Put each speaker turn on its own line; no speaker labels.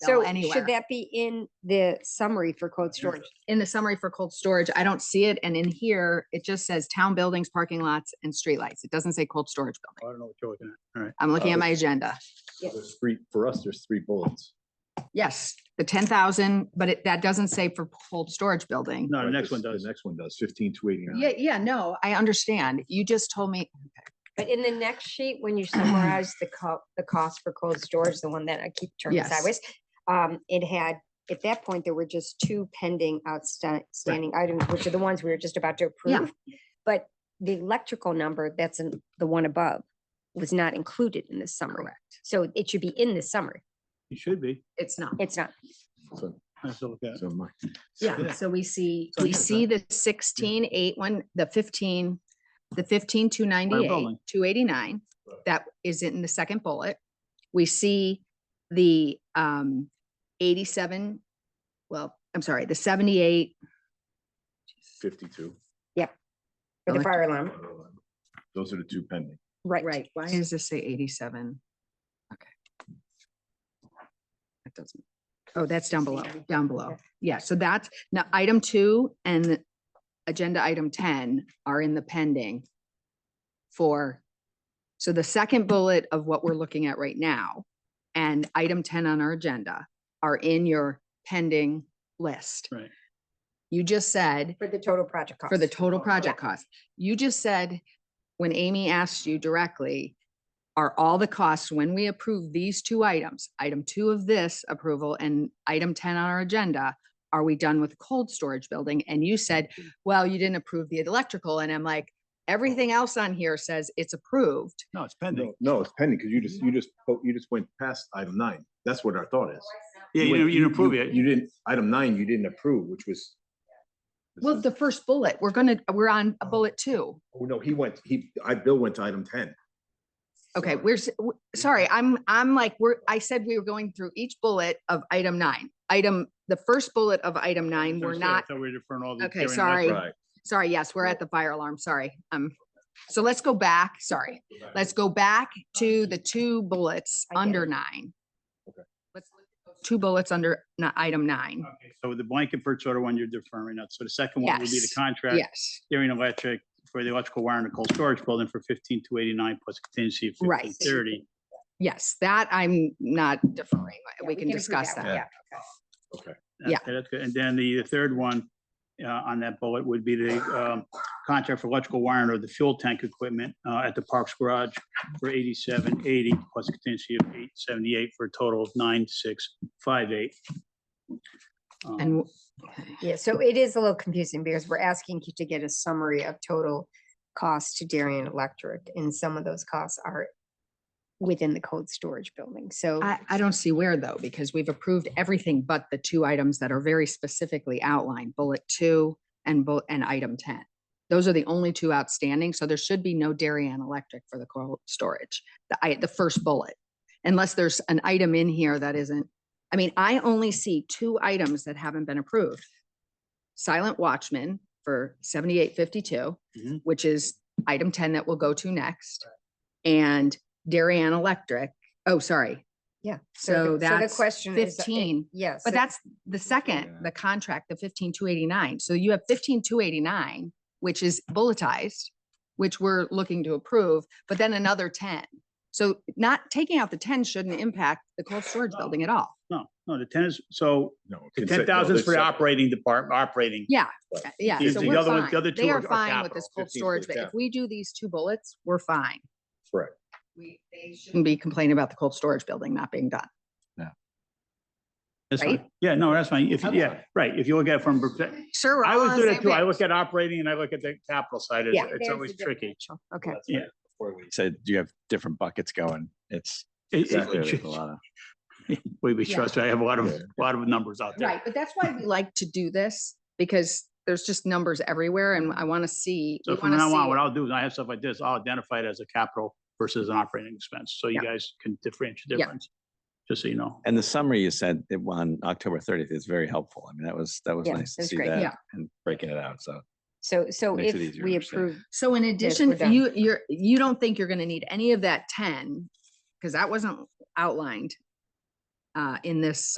So
bill anywhere.
should that be in the summary for cold storage?
In the summary for cold storage, I don't see it. And in here, it just says town buildings, parking lots and streetlights. It doesn't say cold storage building.
I don't know what you're looking at. All right.
I'm looking
Oh.
at my agenda.
There's three, for us, there's three bullets.
Yes, the ten thousand, but it, that doesn't say for cold storage building.
No, the
Right,
next
this-
one does.
The next one does, fifteen to eighty-nine.
Yeah, yeah, no, I understand. You just told me,
But in the next sheet, when you summarize the co- the cost for cold storage, the one that I keep turning
Yes.
sideways. Um, it had, at that point, there were just two pending outstanding items, which are the ones we were just about to
Yeah.
approve. But the electrical number, that's in the one above, was not included in the summary.
correct.
So it should be in the summary.
You should be.
It's not.
It's not.
So-
I have to look at it.
so my-
Yeah,
Yeah.
so we see,
So
we
here's
see the sixteen, eight, one, the fifteen, the fifteen, two ninety-eight,
building.
two eighty-nine.
Right.
That is in the second bullet. We see the um eighty-seven, well, I'm sorry, the seventy-eight.
Fifty-two.
For the fire alarm,
Those are the two pending.
right.
Why does this say eighty-seven? Okay. That doesn't, oh, that's down below, down below.
Okay.
Yeah, so that's, now, item two and agenda item ten are in the pending for, so the second bullet of what we're looking at right now and item ten on our agenda are in your pending list.
Right.
You just said
For the total project cost.
for the total project cost. You just said, when Amy asked you directly, are all the costs, when we approve these two items, item two of this approval and item ten on our agenda, are we done with cold storage building? And you said, well, you didn't approve the electrical. And I'm like, everything else on here says it's approved.
No, it's pending.
No, no, it's pending, because you just, you just, po- you just went past item nine. That's what our thought is.
Yeah, you didn't-
went-
you didn't approve it.
You didn't, item nine, you didn't approve, which was. this
Well,
is-
the first bullet, we're gonna, we're on a bullet two.
Oh, no, he went, he, I, Bill went to item ten.
Okay,
Sorry.
we're, s- w- sorry, I'm, I'm like, we're, I said we were going through each bullet of item nine. Item, the first bullet of item nine, we're not
So we're different all the.
Okay,
different left-
sorry.
Right.
Sorry, yes, we're at the fire alarm, sorry. Um, so let's go back, sorry. Let's go back to the two bullets
I get
under
it.
nine.
Okay.
Let's look at those Two bullets under ni- item nine.
Okay, So the blanket purchase order one, you're deferring that. So the second one would be the
Yes.
contract.
Yes,
Darien Electric for the electrical wire in the cold storage building for fifteen to eighty-nine plus contingency of
Right.
fifteen thirty.
yes, that I'm not deferring.
Yeah,
We can
approve
discuss
one,
that.
yeah.
Yeah.
Okay, that's good. And then the the third one uh, on that bullet would be the um, contract for electrical wiring or the fuel tank equipment uh, at the Parks Garage for eighty-seven eighty plus contingency of eight seventy-eight for a total of nine six five eight. Um,
And w-
Yeah, so it is a little confusing because we're asking you to get a summary of total cost to Darien Electric, and some of those costs are within the cold storage building, so.
I, I don't see where though, because we've approved everything but the two items that are very specifically outlined, bullet two and bullet, and item ten. Those are the only two outstanding, so there should be no dairy and electric for the cold storage, the, I, the first bullet. Unless there's an item in here that isn't, I mean, I only see two items that haven't been approved. Silent Watchman for seventy-eight fifty-two,
Mhm.
which is item ten that we'll go to next. And dairy and electric, oh, sorry,
Yeah.
so
the-
that's
The question is. uh, it-
15,
Yes.
But
so-
that's the second, the contract, the fifteen two eighty-nine. So you have fifteen two eighty-nine, which is bulletized, which we're looking to approve, but then another ten. So not taking out the ten shouldn't impact the cold storage
No.
building at all.
No, no, the ten is, so
No.
the
consent-
ten
no,
thousand is
this
for the
sec-
operating department, operating.
Yeah,
Right.
uh, yeah.
Because
So
the
we're
other one- the
fine.
other
They
two
are
are- are
fine with this
capital,
cold
15
storage,
is
but if
capital.
we do these two bullets, we're fine.
Correct.
We, they shouldn't be complaining about the cold storage building not being done.
That's
Right?
fine. Yeah, no, that's fine. If,
Okay.
yeah, right. If you look at it from, perspective-
Sure. we're
I
all
always
on
do
the
that
same
too. I
page.
look at operating and I look at the capital side. It's,
Yeah,
it's
there's
always
the
tricky.
differential. Okay.
Yeah.
Before we-
said you have different buckets going. It's
It- it-
exactly, there's a lot of.
We, we
Yeah.
trust, I have a lot of,
Yeah.
a lot of numbers out there.
Right, but that's why we like to do this, because there's just numbers everywhere and I want to see.
So
we
from
wanna
now on,
see-
what I'll do is I have stuff like this, I'll identify it as a capital versus an operating expense. So you
Yeah.
guys can differentiate
Yeah.
difference. Just so you know.
And the summary you said it on October thirtieth is very helpful. I mean, that was, that was
Yeah,
nice
it
to
was
see
great.
Yeah.
that and breaking it out. So
So, so
Makes it
if
easier to
we
understand.
approve,
So in addition,
we're done.
you, you're, you don't think you're going to need any of that ten, because that wasn't outlined uh, in this